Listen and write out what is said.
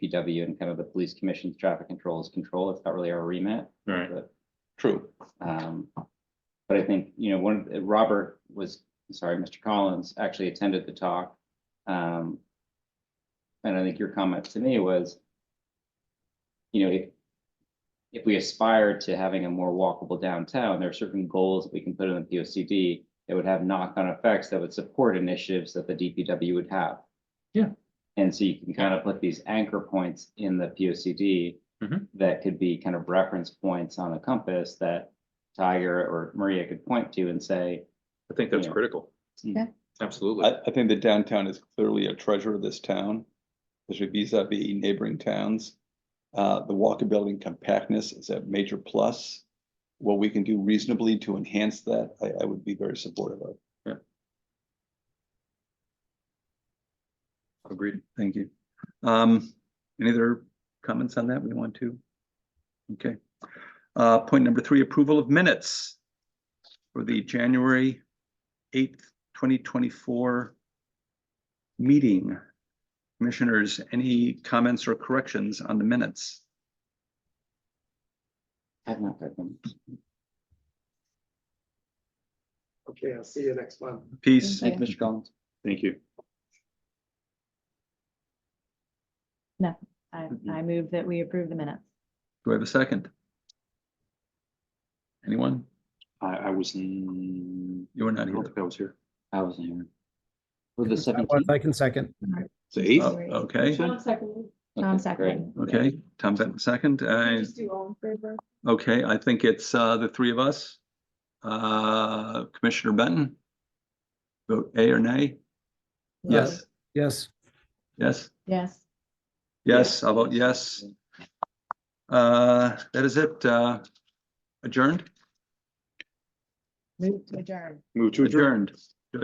PW and kind of the police commission's traffic control is control. It's not really our remit. Right, but true. Um, but I think, you know, one, of- Robert was, sorry, Mr. Collins actually attended the talk. Um, and I think your comment to me was, you know, if, if we aspire to having a more walkable downtown, there are certain goals that we can put in the P O C D that would have knock-on effects that would support initiatives that the D P W would have. Yeah. And so you can kind of put these anchor points in the P O C D that could be kind of reference points on a compass that Tiger or Maria could point to and say, I think that's Yeah. critical. Yeah. Mm. Absolutely. I, I think the downtown is clearly a treasure of this town, especially vis-à-vis neighboring towns. Uh, the walkability and compactness is a major plus. What we can do reasonably to enhance that, I, I would be very supportive of. Agreed. Thank you. Um, any other comments on that we want to? Okay. Uh, point number three, approval of minutes for the January eighth, twenty twenty-four meeting. Commissioners, any comments or corrections on the minutes? I've not read them. Okay, I'll see you next month. Peace. Thank Mr. Collins. Thank you. I, Mhm. I move that we approve the minutes. Do I have a second? Anyone? I, I was, in- You were I not don't here. think I was here. I wasn't here. For the I seventeenth. want- I can second. The eighth? Oh, Okay, Tom second. okay. Tom Benton second. Uh, Okay, I think it's uh the three of us. Uh Commissioner Benton? Vote A or nay? Yes, Yes, yes, Yes, yes, I'll vote yes. Uh, that is it, uh adjourned, move to adjourn. Move to adjourn. adjourned.